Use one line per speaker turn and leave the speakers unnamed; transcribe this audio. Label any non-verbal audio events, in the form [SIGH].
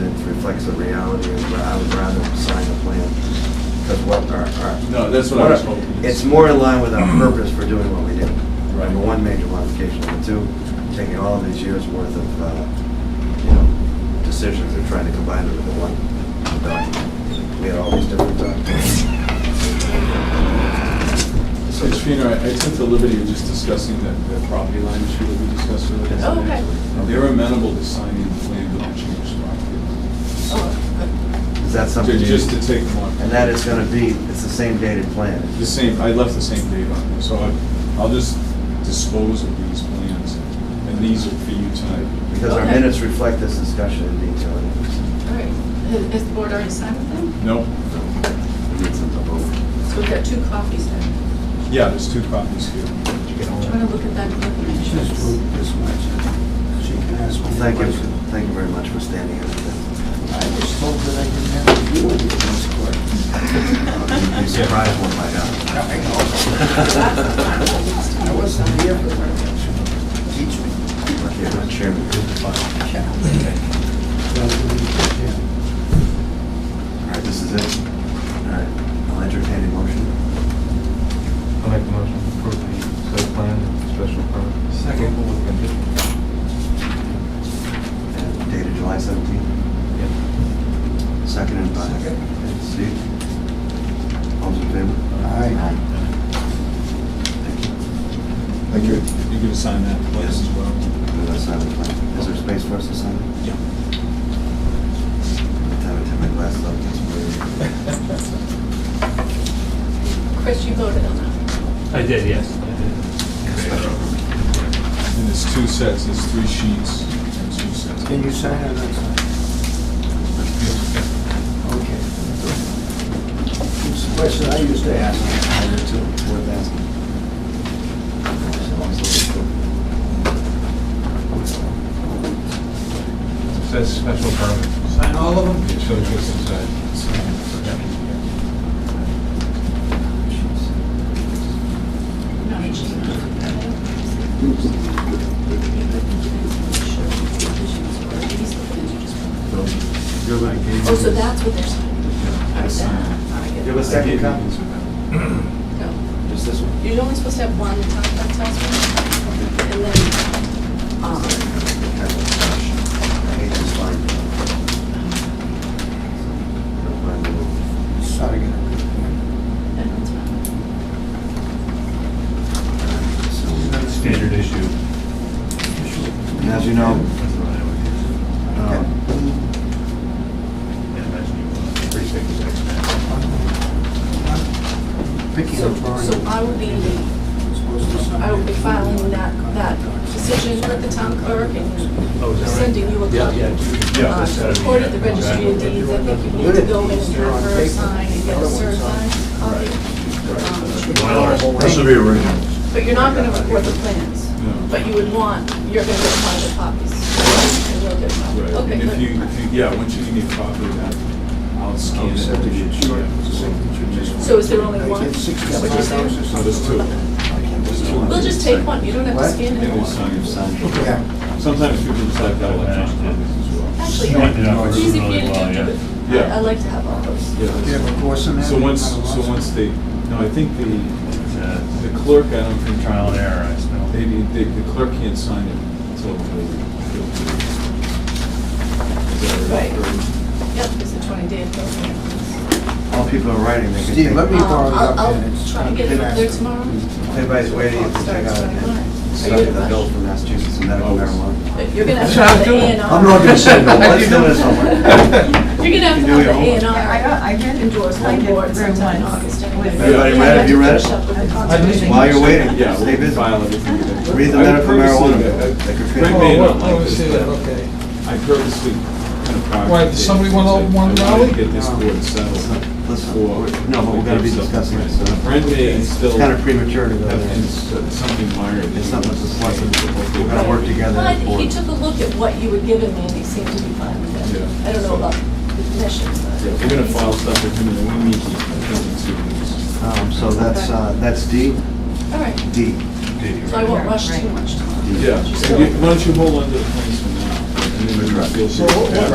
reflects the reality, and I would rather sign the plan, because what our, our.
No, that's what I was hoping.
It's more in line with our purpose for doing what we did.
Right.
Number one, major modification, number two, taking all of these years' worth of, uh, you know, decisions and trying to combine them into one document. We had all these different documents.
So, Trina, I I took the liberty of just discussing that, that property line issue that we discussed earlier.
Oh, okay.
They're amenable to signing the plan without change to property.
Oh,
Is that something?
line.
you-
Ju- Just to take them on.
And that is gonna be, it's the same dated plan.
The same, I left the same date on there, so I, I'll just dispose of these plans, and these are for you tonight.
Because our
Okay.
minutes reflect this discussion in detail.
All right, has the board already signed with them?
No,
So we've got two copies then.
yeah, there's two copies here.
Do you want to look at that book and make sure it's-
She can ask
Well,
me
Thank you,
questions.
thank you very much for standing up. with
I was told that I didn't have to do anything this
us.
quick.
You'd be surprised what might happen.
I know.
[LAUGHS]
I wasn't here for that. Teach me.
Lucky I'm not chairman. All right, this is it. All right, I'll entertain a motion.
I'll make the motion to approve the site plan and special permit.
Second.
With condition.
And Dated July 17th, seconded by
Second.
Steve. All's in favor?
Aye.
Thank you.
Thank you.
You can sign that plan as well.
Did I sign the plan? Is there space for us to sign it?
[LAUGHS] Yeah.
Every time I take my glasses off, it's weird.
Chris, you voted on that.
I did, yes. I did.
And there's two sets, there's three sheets and two sets.
Can you sign it outside? Okay. It's a question I used to ask. I did too. Worth asking.
It Says special permit.
Sign all of them?
It shows what's inside.
No, I just- Oh, so that's what they're signing. All right, then. All right,
You have a
good.
second copy?
No.
Just this one?
You're only supposed to have one, that's that's us, and then, um,
I hate this line.
Sorry, I got a good point.
and that's fine.
Standard issue.
And as you know, um,
Picking
So,
up drawing.
so I will be,
Supposed to sign
I will be
it.
filing that, that decision with the town clerk and
Oh,
sending you a copy.
Yeah,
Uh,
that's
to
gotta be
record at
it.
the registry of deeds, I think you need to go in and have her sign and get a certified copy. Um,
This will be original.
But you're not gonna record the plans, but you would want, you're gonna get one of the copies. And you'll get one.
Right,
Okay,
and if
good.
you, if you, yeah, once you give me a copy of that, I'll scan it.
Except if you-
Oh, Yeah.
So is there only one?
It's sixty
Is that what you're saying?
dollars or
No, there's two. There's two.
We'll just take one, you don't have to
What?
scan
And
it.
we'll sign it.
Yeah.
Sometimes people just like that electronic copies as well.
Actually,
You went it up
it's easy for you
really well,
to do,
yeah.
but I-
Yeah.
I like to have all those.
Yeah,
Do you have a course in that?
So once, so once they, no, I think the,
It's a
the clerk, I don't think.
trial and error, I smell.
They, they, the clerk can't sign it until they feel free. Is that
Right.
Or-
Yep, it's a twenty day program.
all people are writing, they can
Steve, let me
take,
borrow
Um, I'll-
that
I'll
pen. It's
try to
not
get it
been
up there
asked.
tomorrow.
Mm-hmm. everybody's waiting to check
Starts
out.
when I want it.
Stuff
Are you
with
in
a
a
bill
rush?
from Massachusetts and medical
Always.
marijuana.
But You're gonna
[LAUGHS]
have to have the A and R.
I'm not gonna say
[LAUGHS]
no, let's do this one.
You're gonna have
[LAUGHS]
to
You do
have
your
the A
homework.
and
I
R
got, I read it.
endorsed
I
by
did
board
very
sometime in
once.
August anyway.
With-
Everybody read it? Have you read it?
Finish up with the
I
conservation.
didn't-
While you're waiting,
Yeah,
stay
we'll
busy.
file everything. today.
Read the
I
medical
purposely-
marijuana bill. They could
Frank
fit-
may
Oh,
not
well,
like
I
this,
see that,
but
okay.
I purposely kind of.
Why,
prioritized
does somebody
it
want
because
all
I-
one
I wanted
rally?
to get this board settled.
Listen, we're- no, but we're gonna be discussing it, so
Brent may still
it's kind of
have
premature to go
been
there.
s- something minor. that
It's
he
not
wants to
much
say.
We're gonna work together.
Well, I
as a
think he
board.
took a look at what you had given me and he seemed to be fine with it.
Yeah.
I don't know about the commission, but.
Yeah, We're gonna file stuff with him and then we meet, he- I think, in two weeks.
Um, so that's, uh, that's D,
All right,
D.
so I won't rush too
Right.
much tomorrow.
Yeah, so you- why don't you hold on to the plans for now? and then we can feel free
So
to-
what- what-